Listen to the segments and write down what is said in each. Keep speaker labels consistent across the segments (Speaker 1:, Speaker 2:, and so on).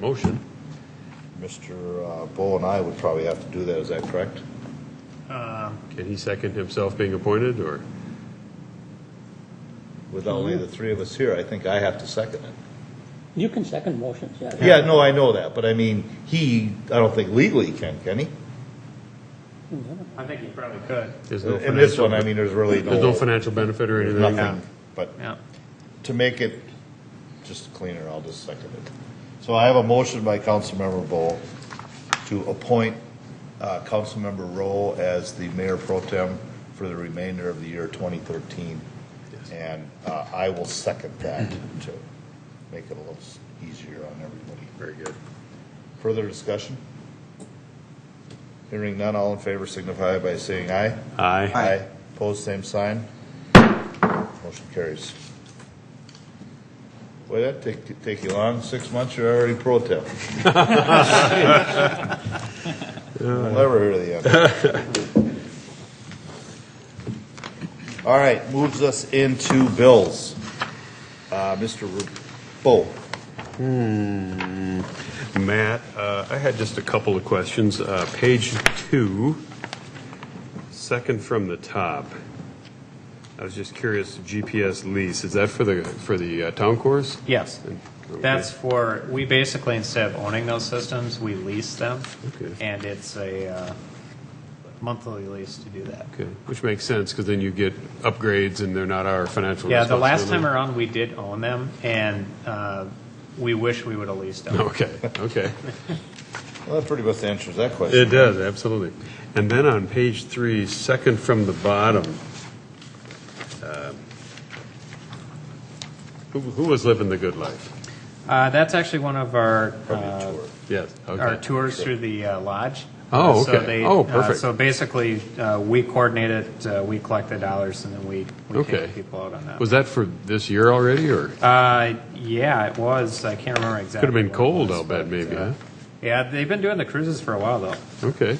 Speaker 1: Motion.
Speaker 2: Mr. uh, Bo and I would probably have to do that, is that correct?
Speaker 1: Can he second himself being appointed, or?
Speaker 2: With only the three of us here, I think I have to second it.
Speaker 3: You can second motions, yeah.
Speaker 2: Yeah, no, I know that, but I mean, he, I don't think legally can, can he?
Speaker 4: I think you probably could.
Speaker 1: there's no
Speaker 2: In this
Speaker 1: financial-
Speaker 2: one, I mean, there's really
Speaker 1: There's no
Speaker 2: no,
Speaker 1: financial benefit or anything?
Speaker 2: nothing. But
Speaker 4: Yeah.
Speaker 2: to make it just cleaner, I'll just second it. So I have a motion by Councilmember Bo to appoint uh, Councilmember Rowe as the mayor pro tem for the remainder of the year 2013. And uh, I will second that to make it a little s- easier on everybody.
Speaker 1: Very good.
Speaker 2: Further discussion? Hearing none, all in favor signify by saying aye.
Speaker 1: Aye.
Speaker 2: Aye. Opposed, same sign. Motion carries. Boy, that take, take you long, six months, you're already pro temp. We'll never hear the end. All right, moves us into bills. Uh, oh, Mr. Bo,
Speaker 1: Matt, uh, I had just a couple of questions. Uh, Page two, second from the top. I was just curious, GPS lease, is that for the, for the uh, town course?
Speaker 4: Yes.
Speaker 1: Okay.
Speaker 4: That's for, we basically, instead of owning those systems, we lease them.
Speaker 1: Okay.
Speaker 4: And it's a uh, monthly lease to do that.
Speaker 1: Okay, which makes sense, because then you get upgrades and they're not our financial
Speaker 4: Yeah, the last time
Speaker 1: responsibility.
Speaker 4: around, we did own them, and uh, we wish we would have leased them.
Speaker 1: Okay, okay.
Speaker 2: well, that pretty much answers that question.
Speaker 1: It does, absolutely. And then on page three, second from the bottom, uh, who who was living the good life?
Speaker 4: Uh, That's actually one of our, uh,
Speaker 2: Tour.
Speaker 1: Yes,
Speaker 4: our
Speaker 1: okay.
Speaker 4: tours through the uh, lodge.
Speaker 1: Oh,
Speaker 4: Uh, so
Speaker 1: okay.
Speaker 4: they-
Speaker 1: Oh,
Speaker 4: uh,
Speaker 1: perfect.
Speaker 4: So basically, uh, we coordinate it, uh, we collect the dollars, and then we we
Speaker 1: Okay.
Speaker 4: take people out on that.
Speaker 1: Was that for this year already, or?
Speaker 4: Uh, yeah, it was. I can't remember exactly.
Speaker 1: Could've been
Speaker 4: what it
Speaker 1: cold,
Speaker 4: was,
Speaker 1: I'll bet,
Speaker 4: but,
Speaker 1: maybe,
Speaker 4: uh,
Speaker 1: huh?
Speaker 4: Yeah, they've been doing the cruises for a while though.
Speaker 1: Okay.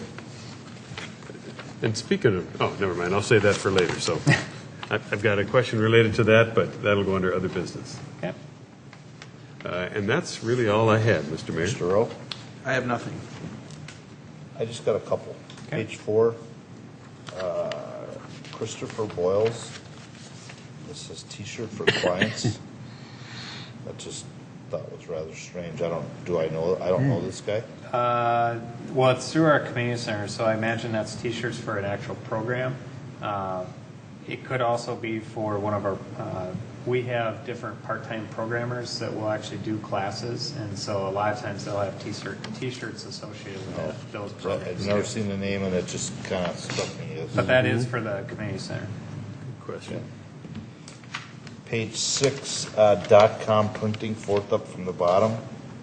Speaker 1: And speaking of, oh, never mind, I'll save that for later, so. I- I've got a question related to that, but that'll go under other business.
Speaker 4: Okay.
Speaker 1: Uh, And that's really all I had, Mr. Mayor.
Speaker 2: Mr. Rowe?
Speaker 5: I have nothing.
Speaker 2: I just got a couple.
Speaker 4: Okay.
Speaker 2: Page four, uh, Christopher Boyles. This is T-shirt for clients. I just thought was rather strange. I don't, do I know, I don't
Speaker 5: Hmm.
Speaker 2: know this guy.
Speaker 4: Uh, well, it's through our community center, so I imagine that's T-shirts for an actual program. Uh, it could also be for one of our. Uh, we have different part-time programmers that will actually do classes, and so a lot of times they'll have T-shirt T-shirts associated with that, those
Speaker 2: So I've
Speaker 4: programs.
Speaker 2: never
Speaker 4: too.
Speaker 2: seen the name and it just kind of struck me
Speaker 4: But
Speaker 2: as.
Speaker 4: that is for the community center.
Speaker 1: Question.
Speaker 2: Page six, uh, dot-com printing, fourth up from the bottom,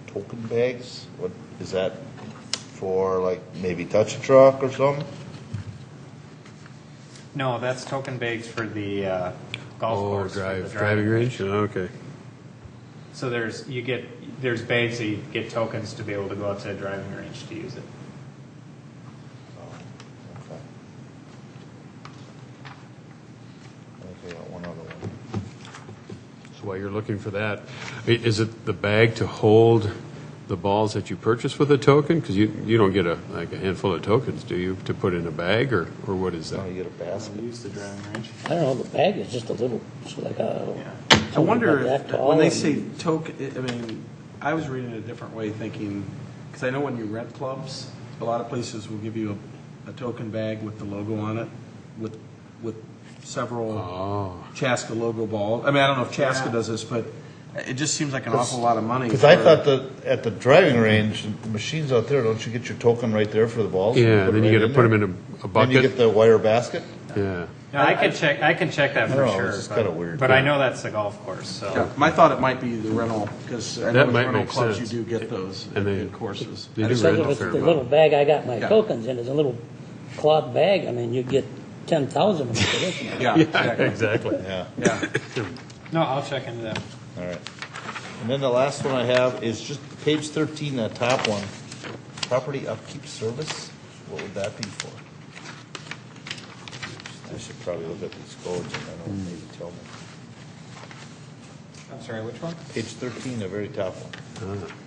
Speaker 2: token bags. What, is that for like maybe touch a truck or something?
Speaker 4: No, that's token bags for the uh, golf
Speaker 1: Oh,
Speaker 4: course. for
Speaker 1: drive,
Speaker 4: the
Speaker 1: driving range? Okay.
Speaker 4: So there's you get there's bags that you get tokens to be able to go out to a driving range to use it.
Speaker 2: Okay. I got one other one.
Speaker 1: So while you're looking for that, i- is it the bag to hold the balls that you purchase with a token? Because you, you don't get a, like a handful of tokens, do you, to put in a bag, or, or what is
Speaker 2: Now
Speaker 1: that?
Speaker 2: you get a basket.
Speaker 4: Use the driving range.
Speaker 3: I don't know, the bag is just a little, it's like a,
Speaker 4: Yeah.
Speaker 5: I wonder,
Speaker 3: Something about
Speaker 5: if
Speaker 3: that
Speaker 5: when they
Speaker 3: tall
Speaker 5: say token, I mean, I was reading it a different way, thinking, because I know when you rent clubs, a lot of places will give you a, a token bag with the logo on it, with, with several
Speaker 1: Oh,
Speaker 5: Chaska logo ball. I mean, I don't know if Chaska
Speaker 4: Yeah.
Speaker 5: does this, but it just seems like an awful lot of money.
Speaker 2: Because I
Speaker 5: for-
Speaker 2: thought that at the driving range, the machines out there, don't you get your token right there for the balls?
Speaker 1: yeah,
Speaker 2: Put
Speaker 1: then
Speaker 2: it
Speaker 1: you
Speaker 2: right
Speaker 1: gotta put them
Speaker 2: there?
Speaker 1: in a- a
Speaker 2: Then you get
Speaker 1: bucket,
Speaker 2: the wire basket?
Speaker 1: yeah.
Speaker 4: Now, I can check. I can check that
Speaker 2: I
Speaker 4: for
Speaker 2: don't know,
Speaker 4: sure.
Speaker 2: it's just
Speaker 4: but,
Speaker 2: kinda weird,
Speaker 4: But
Speaker 2: yeah.
Speaker 4: I know that's the golf course. So
Speaker 5: Yeah, My thought it might be the rental, because I
Speaker 1: That
Speaker 5: know with
Speaker 1: might
Speaker 5: rental
Speaker 1: make
Speaker 5: clubs, you
Speaker 1: sense.
Speaker 5: do get those
Speaker 1: And
Speaker 5: in
Speaker 1: they-
Speaker 5: in courses.
Speaker 1: They do
Speaker 3: because
Speaker 1: rent
Speaker 3: if
Speaker 1: a
Speaker 3: it's
Speaker 1: fair
Speaker 3: the little
Speaker 1: amount.
Speaker 3: bag I got my
Speaker 5: Yeah.
Speaker 3: tokens in, it's a little cloth bag, I mean, you get ten thousand of them for this one.
Speaker 5: Yeah,
Speaker 1: Yeah,
Speaker 5: exactly,
Speaker 1: exactly.
Speaker 2: Yeah,
Speaker 5: yeah.
Speaker 4: no, I'll check into that.
Speaker 2: all right. And then the last one I have is just page thirteen, that top one, property upkeep service, what would that be for? I should probably look at these codes and I don't maybe tell me.
Speaker 4: I'm sorry. Which one?
Speaker 2: Page thirteen, the very top one.
Speaker 1: Ah,